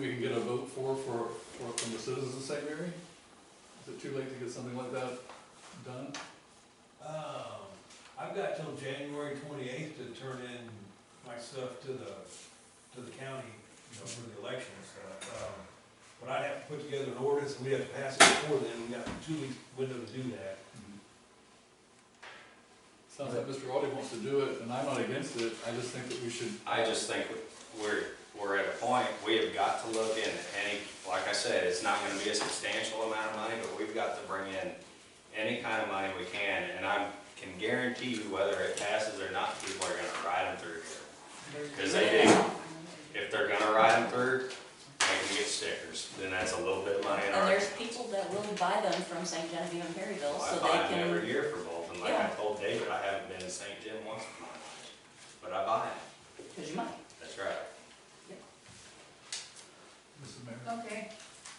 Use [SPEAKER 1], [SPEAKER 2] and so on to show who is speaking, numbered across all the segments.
[SPEAKER 1] We can get a vote for, for, for, from the citizens of St. Mary? Is it too late to get something like that done?
[SPEAKER 2] Um, I've got till January twenty-eighth to turn in my stuff to the, to the county, you know, for the election and stuff. Um, But I'd have to put together an ordinance, and we'd have to pass it before then, we got a two week window to do that.
[SPEAKER 1] Sounds like Mr. Audi wants to do it, and I'm not against it, I just think that we should.
[SPEAKER 3] I just think we're, we're at a point, we have got to look in any, like I said, it's not gonna be a substantial amount of money, but we've got to bring in any kind of money we can, and I can guarantee you whether it passes or not, people are gonna ride them through here. Cause they do, if they're gonna ride them through, they can get stickers, then that's a little bit of money in
[SPEAKER 4] And
[SPEAKER 3] our.
[SPEAKER 4] there's people that will buy them from St. Genevieve and Perryville,
[SPEAKER 3] I
[SPEAKER 4] so
[SPEAKER 3] buy
[SPEAKER 4] they
[SPEAKER 3] them every
[SPEAKER 4] can,
[SPEAKER 3] year for both, and like I
[SPEAKER 4] Yeah.
[SPEAKER 3] told David, I haven't been to St. Jim once in my life, but I buy them,
[SPEAKER 4] cause you might.
[SPEAKER 3] that's right.
[SPEAKER 1] Mrs. Mayor?
[SPEAKER 5] Okay,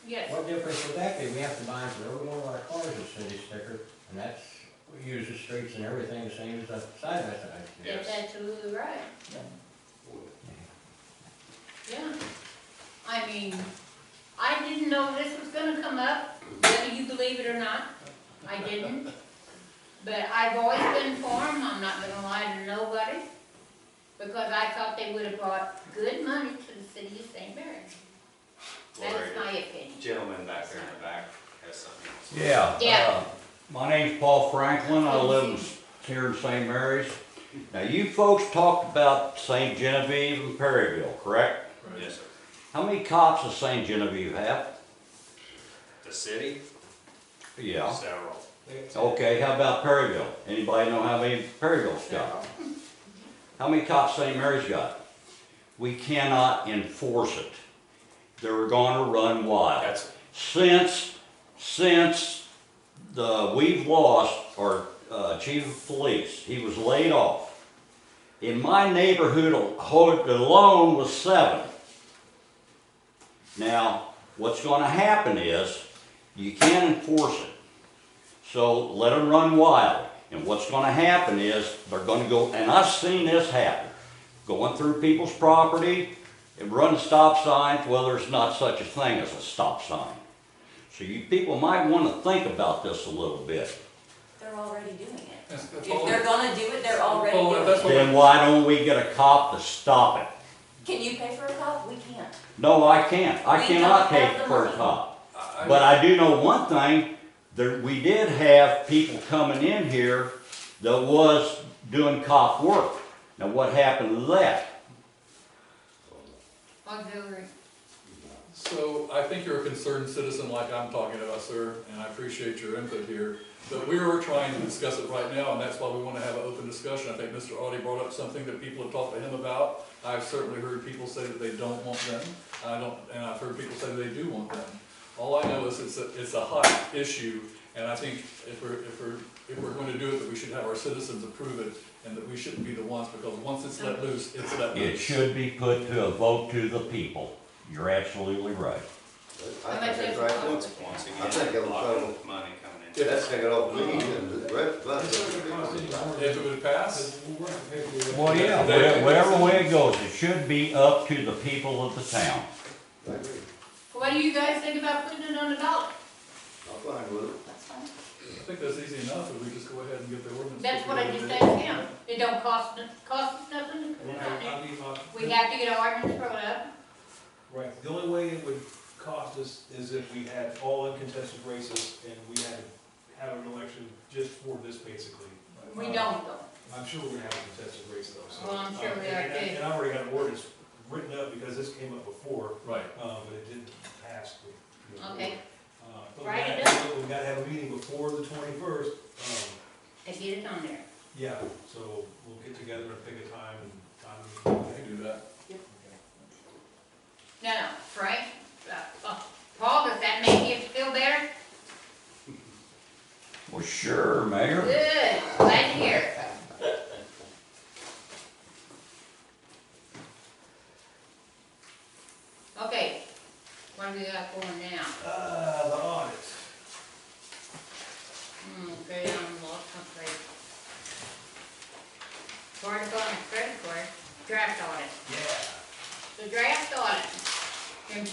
[SPEAKER 5] yes.
[SPEAKER 6] What difference would that be? We have to buy them for every one of our cars a city sticker, and that's, we use the streets and everything the same as the side by side.
[SPEAKER 3] Yes.
[SPEAKER 5] That's absolutely right, yeah. I mean, I didn't know this was gonna come up, whether you believe it or not, I didn't. But I've always been for 'em. I'm not gonna lie to nobody, because I thought they would've brought good money to the city of St. Mary's.
[SPEAKER 3] Gloria.
[SPEAKER 5] That's my opinion.
[SPEAKER 3] Gentleman back there in the back has something else.
[SPEAKER 7] Yeah.
[SPEAKER 5] Yeah.
[SPEAKER 7] uh, My name's Paul Franklin, I live here in St. Mary's. Now, you folks talked about St. Genevieve and Perryville, correct?
[SPEAKER 3] Yes, sir.
[SPEAKER 7] How many cops does St. Genevieve have?
[SPEAKER 3] The city,
[SPEAKER 7] Yeah.
[SPEAKER 3] several.
[SPEAKER 2] They-
[SPEAKER 7] Okay, how about Perryville? Anybody know how many Perryville's got? How many cops St. Mary's got? We cannot enforce it. They're gonna run wild.
[SPEAKER 3] That's,
[SPEAKER 7] since, since the, we've lost our uh, chief of police, he was laid off. In my neighborhood al- ho- alone was seven. Now, what's gonna happen is, you can't enforce it. So let them run wild. And what's gonna happen is, they're gonna go, and I've seen this happen, going through people's property, and run stop signs, well, there's not such a thing as a stop sign. So you people might wanna think about this a little bit.
[SPEAKER 4] They're already doing it.
[SPEAKER 1] That's- that's
[SPEAKER 4] If
[SPEAKER 1] all.
[SPEAKER 4] they're gonna do it, they're already
[SPEAKER 1] Oh, that's
[SPEAKER 4] doing it.
[SPEAKER 1] what-
[SPEAKER 7] Then why don't we get a cop to stop it?
[SPEAKER 4] Can you pay for a cop? We can't.
[SPEAKER 7] No, I can't. I
[SPEAKER 4] We
[SPEAKER 7] cannot
[SPEAKER 4] don't have
[SPEAKER 7] take
[SPEAKER 4] the
[SPEAKER 7] for a
[SPEAKER 4] money.
[SPEAKER 7] cop.
[SPEAKER 1] I- I-
[SPEAKER 7] But I do know one thing, there, we did have people coming in here that was doing cop work. Now, what happened to that?
[SPEAKER 5] Auxiliary.
[SPEAKER 1] So I think you're a concerned citizen like I'm talking about, sir, and I appreciate your input here. But we are trying to discuss it right now, and that's why we want to have an open discussion. I think Mr. Audi brought up something that people have talked to him about. I've certainly heard people say that they don't want them. I don't, and I've heard people say they do want them. All I know is it's a, it's a hot issue, and I think if we're, if we're, if we're going to do it, that we should have our citizens approve it, and that we shouldn't be the ones, because once it's let loose, it's let loose.
[SPEAKER 7] It should be put to a vote to the people. You're absolutely right.
[SPEAKER 8] I
[SPEAKER 5] How much
[SPEAKER 8] think
[SPEAKER 5] is
[SPEAKER 8] that's
[SPEAKER 5] it?
[SPEAKER 8] right,
[SPEAKER 3] once, once
[SPEAKER 8] once, I think
[SPEAKER 3] again,
[SPEAKER 8] it'll
[SPEAKER 3] blocking
[SPEAKER 8] cover.
[SPEAKER 3] with money coming in.
[SPEAKER 8] that's taken off, we need to, the rest, but it's
[SPEAKER 1] If it would pass,
[SPEAKER 2] We're gonna pay for it.
[SPEAKER 7] Well, yeah, wha- whatever way it goes, it should be up to the people of the town.
[SPEAKER 8] I agree,
[SPEAKER 5] What do you guys think about putting it on the ballot?
[SPEAKER 8] I'm fine with it.
[SPEAKER 4] That's
[SPEAKER 1] I
[SPEAKER 4] fine.
[SPEAKER 1] think that's easy enough, if we just go ahead and get the ordinance.
[SPEAKER 5] That's what I just said to him, it don't cost, n- cost us nothing,
[SPEAKER 2] When I- I leave off-
[SPEAKER 5] we have to get our ordinance brought up.
[SPEAKER 2] Right, the only way it would cost us is if we had all uncontested races and we had to have an election just for this basically.
[SPEAKER 5] We don't though.
[SPEAKER 2] I'm sure we're gonna have a contested race though, so.
[SPEAKER 5] Well, I'm sure
[SPEAKER 2] Um,
[SPEAKER 5] we
[SPEAKER 2] and-
[SPEAKER 5] are,
[SPEAKER 2] and-
[SPEAKER 5] too.
[SPEAKER 2] And I already got an ordinance written up because this came up before,
[SPEAKER 1] Right.
[SPEAKER 2] uh, but it didn't pass. the- the-
[SPEAKER 5] Okay,
[SPEAKER 2] Uh, but we
[SPEAKER 5] Write it
[SPEAKER 2] gotta- We've gotta have a meeting before the twenty-first, um,
[SPEAKER 5] I get it on there.
[SPEAKER 2] yeah, so we'll get together and pick a time and time.
[SPEAKER 1] We can do that.
[SPEAKER 5] No, no, Frank, uh, uh, Paul, does that make you feel better?
[SPEAKER 7] Well, sure, Mayor.
[SPEAKER 5] Good, glad to hear it. Okay, what do we got going now?
[SPEAKER 2] Uh, the audit.
[SPEAKER 5] Hmm, okay, I'm lost, okay. Part of on the credit card, draft audit.
[SPEAKER 2] Yeah.
[SPEAKER 5] The draft audit